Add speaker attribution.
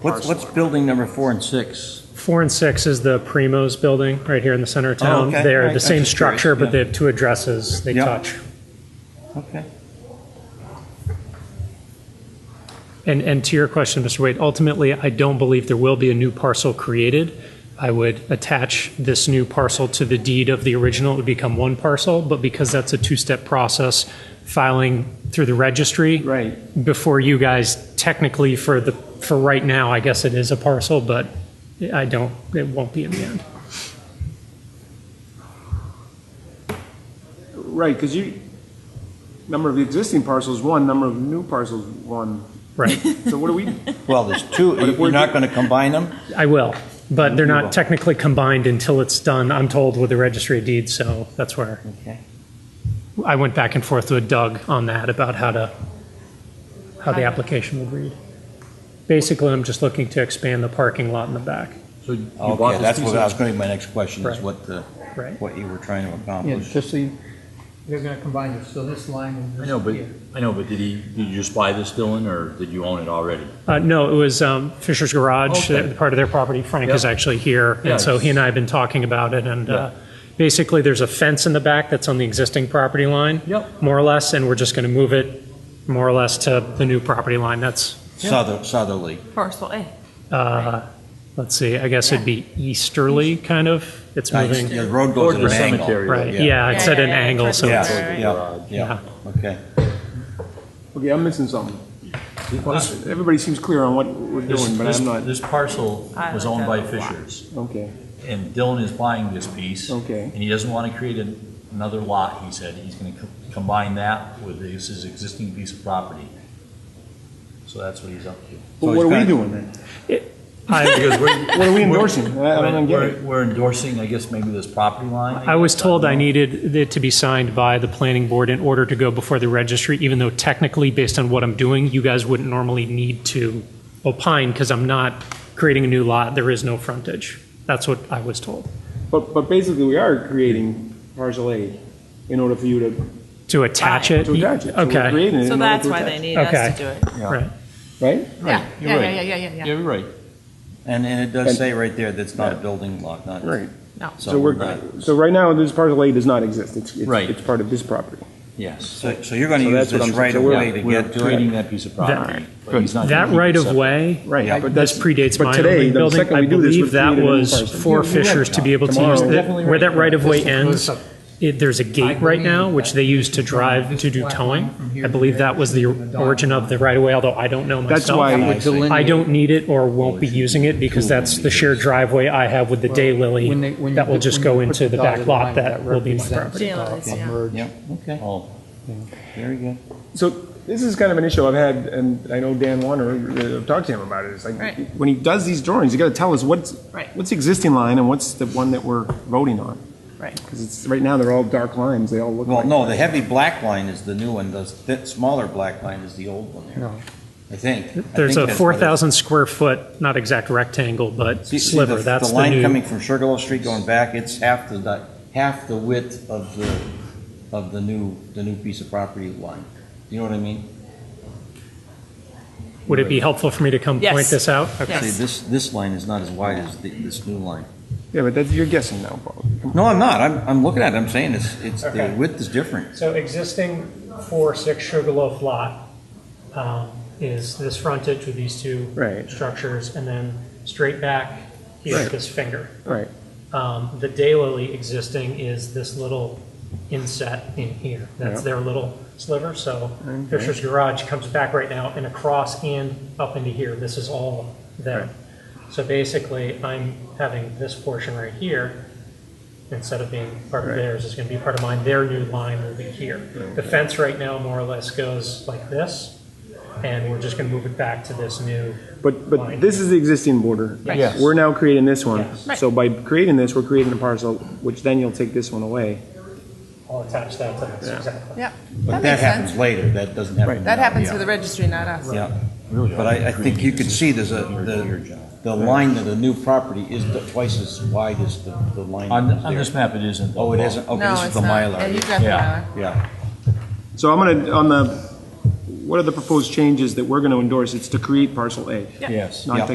Speaker 1: What's, what's building number four and six?
Speaker 2: Four and six is the Primo's building right here in the center of
Speaker 1: Oh,
Speaker 2: town.
Speaker 1: okay.
Speaker 2: They're
Speaker 1: Right,
Speaker 2: the
Speaker 1: I'm
Speaker 2: same
Speaker 1: just curious,
Speaker 2: structure, but
Speaker 1: yeah.
Speaker 2: they have two addresses. They
Speaker 1: Yeah.
Speaker 2: touch.
Speaker 1: Okay.
Speaker 2: And, and to your question, Mr. Wade, ultimately, I don't believe there will be a new parcel created. I would attach this new parcel to the deed of the original, it would become one parcel, but because that's a two-step process, filing through the registry.
Speaker 1: Right.
Speaker 2: Before you guys, technically for the, for right now, I guess it is a parcel, but I don't, it won't be in the end.
Speaker 3: Right, because you, number of existing parcels, one, number of new parcels, one.
Speaker 2: Right.
Speaker 3: So what do we,
Speaker 1: Well, there's two,
Speaker 3: But if
Speaker 1: you're
Speaker 3: we're
Speaker 1: not
Speaker 3: do-
Speaker 1: going to combine them?
Speaker 2: I will, but they're
Speaker 1: You
Speaker 2: not
Speaker 1: will.
Speaker 2: technically combined until it's done, I'm told, with the registry of deeds, so that's where
Speaker 1: Okay.
Speaker 2: I went back and forth with Doug on that about how to, how the application would read. Basically, I'm just looking to expand the parking lot in the back,
Speaker 4: So you bought
Speaker 1: Okay,
Speaker 4: this
Speaker 1: that's
Speaker 4: piece
Speaker 1: what,
Speaker 4: of-
Speaker 1: that was going to be my next question, is
Speaker 2: Right.
Speaker 1: what the,
Speaker 2: right?
Speaker 1: what you were trying to
Speaker 5: Yeah,
Speaker 1: accomplish.
Speaker 5: just see, they're gonna combine it, so this line and
Speaker 4: I
Speaker 5: this
Speaker 4: know, but,
Speaker 5: here.
Speaker 4: I know, but did he, did you just buy this, Dylan, or did you own it already?
Speaker 2: Uh, no, it was um, Fisher's Garage,
Speaker 4: Okay.
Speaker 2: the- part of their property. Frank is
Speaker 4: Yeah.
Speaker 2: actually here,
Speaker 4: Yeah,
Speaker 2: and so he and I have been talking about it, and uh, basically, there's a fence in the back that's on the existing property line.
Speaker 4: Yep.
Speaker 2: More or less, and we're just going to move it more or less to the new property line. That's,
Speaker 1: Souther- Southerly,
Speaker 6: Parcel A.
Speaker 2: uh, let's see, I guess it'd be easterly, kind of. It's
Speaker 1: Nice.
Speaker 2: moving.
Speaker 1: Yeah, the road goes
Speaker 4: Toward
Speaker 1: at an
Speaker 4: the
Speaker 1: angle.
Speaker 4: cemetery.
Speaker 2: Right,
Speaker 1: Yeah.
Speaker 2: yeah, it's at
Speaker 6: Yeah,
Speaker 2: an
Speaker 6: yeah, yeah,
Speaker 2: angle, so
Speaker 1: Yeah,
Speaker 2: it's,
Speaker 6: Right.
Speaker 1: yeah, yeah, okay.
Speaker 3: okay, I'm missing something. Well, Everybody seems clear on what we're
Speaker 4: This-
Speaker 3: doing, but
Speaker 4: this-
Speaker 3: I'm not,
Speaker 4: This parcel
Speaker 6: I
Speaker 4: was
Speaker 6: like
Speaker 4: owned
Speaker 6: that
Speaker 4: by
Speaker 6: a lot.
Speaker 4: Fishers,
Speaker 3: okay,
Speaker 4: and Dylan is buying this piece.
Speaker 3: okay.
Speaker 4: And he doesn't want to create an- another lot, he said. He's going to combine that with his his existing piece of property. So that's what he's up to.
Speaker 3: But
Speaker 1: So
Speaker 3: what
Speaker 1: it's
Speaker 3: are we
Speaker 1: kinda-
Speaker 3: doing then?
Speaker 2: I,
Speaker 4: Because we're-
Speaker 3: What are we
Speaker 4: we're-
Speaker 3: endorsing? I I don't get
Speaker 4: We're
Speaker 3: it.
Speaker 4: we're endorsing, I guess, maybe this property line?
Speaker 2: I was told I
Speaker 4: don't know.
Speaker 2: needed it to be signed by the planning board in order to go before the registry, even though technically, based on what I'm doing, you guys wouldn't normally need to opine, because I'm not creating a new lot, there is no frontage. That's what I was told,
Speaker 3: But, but basically, we are creating parcel A in order for you to,
Speaker 2: to attach it.
Speaker 3: to attach it. So we're
Speaker 2: Okay,
Speaker 3: creating it in
Speaker 6: So
Speaker 3: order
Speaker 6: that's
Speaker 3: to
Speaker 6: why
Speaker 3: attach
Speaker 6: they
Speaker 3: it.
Speaker 6: need us
Speaker 2: Okay.
Speaker 6: to do it.
Speaker 2: right,
Speaker 3: Right?
Speaker 6: Yeah,
Speaker 1: You're
Speaker 6: yeah,
Speaker 1: right.
Speaker 6: yeah, yeah, yeah, yeah.
Speaker 1: You're right. And, and it does
Speaker 3: And-
Speaker 1: say right there that's not a building lot, not.
Speaker 3: Right.
Speaker 6: No.
Speaker 3: So
Speaker 1: not-
Speaker 3: we're, so right now, this parcel A does not exist. It's,
Speaker 4: Right.
Speaker 3: it's, it's part of this property.
Speaker 4: Yes.
Speaker 1: So, so you're going to
Speaker 3: So
Speaker 1: use
Speaker 3: that's what
Speaker 1: this
Speaker 3: I'm saying.
Speaker 1: right
Speaker 3: So
Speaker 1: away
Speaker 3: we're-
Speaker 1: to
Speaker 4: We're
Speaker 1: get to
Speaker 4: creating
Speaker 1: it?
Speaker 4: that piece of
Speaker 2: Alright,
Speaker 4: property. but he's not
Speaker 2: that
Speaker 4: gonna keep
Speaker 2: right
Speaker 4: it
Speaker 2: of
Speaker 4: separate.
Speaker 2: way,
Speaker 3: Right.
Speaker 1: Yeah.
Speaker 3: but
Speaker 2: this
Speaker 3: that's-
Speaker 2: predates
Speaker 3: but
Speaker 2: my
Speaker 3: today,
Speaker 2: only
Speaker 3: the
Speaker 2: building,
Speaker 3: second
Speaker 2: I
Speaker 3: we do this, we're
Speaker 2: believe that
Speaker 3: creating a new
Speaker 2: was
Speaker 3: parcel.
Speaker 2: for Fishers to be able to use,
Speaker 3: Tomorrow-
Speaker 2: that- where that right of way
Speaker 5: This
Speaker 2: ends.
Speaker 5: goes up.
Speaker 2: It, there's a gate right now, which they use to drive to do towing. I believe that was the origin of the right-of-way, although I don't know myself.
Speaker 3: That's why,
Speaker 1: I see.
Speaker 2: I don't need it or won't be using it because that's the shared driveway I have with the
Speaker 5: When they- when
Speaker 2: daylily
Speaker 5: you
Speaker 2: that will
Speaker 5: put-
Speaker 2: just
Speaker 5: when
Speaker 2: go
Speaker 5: you put
Speaker 2: into the
Speaker 5: dotted
Speaker 2: back lot
Speaker 5: line,
Speaker 2: that will be my
Speaker 5: represents,
Speaker 2: property.
Speaker 5: uh,
Speaker 6: property.
Speaker 5: a
Speaker 6: Yeah.
Speaker 5: merge.
Speaker 1: Yeah, okay.
Speaker 4: Oh,
Speaker 1: Very good.
Speaker 3: So this is kind of an issue I've had, and I know Dan Warner, uh, I've talked to him about it. It's like,
Speaker 6: Right.
Speaker 3: when he does these drawings, you gotta tell us what's,
Speaker 6: Right.
Speaker 3: what's the existing line and what's the one that we're voting on?
Speaker 6: Right.
Speaker 3: Because it's, right now, they're all dark lines, they all look
Speaker 1: Well,
Speaker 3: like.
Speaker 1: no, the heavy black line is the new one, the th- smaller black line is the old one there,
Speaker 5: No.
Speaker 1: I think. I
Speaker 2: There's
Speaker 1: think
Speaker 2: a
Speaker 1: that's what it-
Speaker 2: 4,000 square foot, not exact rectangle, but
Speaker 1: See- see
Speaker 2: sliver, that's the
Speaker 1: line coming
Speaker 2: new.
Speaker 1: from Sugarloaf Street going back, it's half the, di- half the width of the, of the new, the new piece of property line. You know what I mean?
Speaker 2: Would it be helpful for me to come
Speaker 6: Yes.
Speaker 2: point this out?
Speaker 6: Yes.
Speaker 1: See, this, this line is not as wide as the- this new line.
Speaker 3: Yeah, but that's, you're guessing now, Paul.
Speaker 1: No, I'm not, I'm, I'm looking at it, I'm saying it's, it's, the
Speaker 2: Okay.
Speaker 1: width is different.
Speaker 2: So existing four, six Sugarloaf lot um, is this frontage with these two
Speaker 3: Right.
Speaker 2: structures, and then straight back here,
Speaker 3: Right.
Speaker 2: this finger.
Speaker 3: Right.
Speaker 2: Um, The daylily existing is this little inset in here. That's
Speaker 3: Yeah.
Speaker 2: their little sliver, so Fisher's Garage comes back right now and across and up into here. This is all them. So basically, I'm having this portion right here, instead of being part of theirs, is going to be part of mine. Their new line will be here. The fence right now more or less goes like this, and we're just going to move it back to this new,
Speaker 3: But, but this is the existing border.
Speaker 6: Right. Yes.
Speaker 3: We're now creating this one.
Speaker 2: Yes.
Speaker 6: Right.
Speaker 3: So by creating this, we're creating a parcel, which then you'll take this one away.
Speaker 2: I'll attach that to this,
Speaker 3: Yeah.
Speaker 2: exactly.
Speaker 6: Yeah.
Speaker 1: But that
Speaker 6: makes
Speaker 1: happens
Speaker 6: sense.
Speaker 1: later, that doesn't happen.
Speaker 6: That
Speaker 1: now.
Speaker 6: happens
Speaker 1: Yeah.
Speaker 6: to the registry, not us.
Speaker 1: Yeah,
Speaker 4: really,
Speaker 1: but I, I think you could see there's a, the, the line of the new property is the- twice as wide as the, the line.
Speaker 4: On,
Speaker 1: that was
Speaker 4: on
Speaker 1: there.
Speaker 4: this map, it isn't.
Speaker 1: Oh, it isn't, okay,
Speaker 6: No,
Speaker 1: this is
Speaker 6: it's
Speaker 1: the
Speaker 6: not. Yeah,
Speaker 1: Mylar,
Speaker 6: you've got the
Speaker 4: Yeah.
Speaker 6: Mylar.
Speaker 1: yeah.
Speaker 3: So I'm gonna, on the, what are the proposed changes that we're gonna endorse? It's to create parcel A,
Speaker 4: Yes.
Speaker 3: not to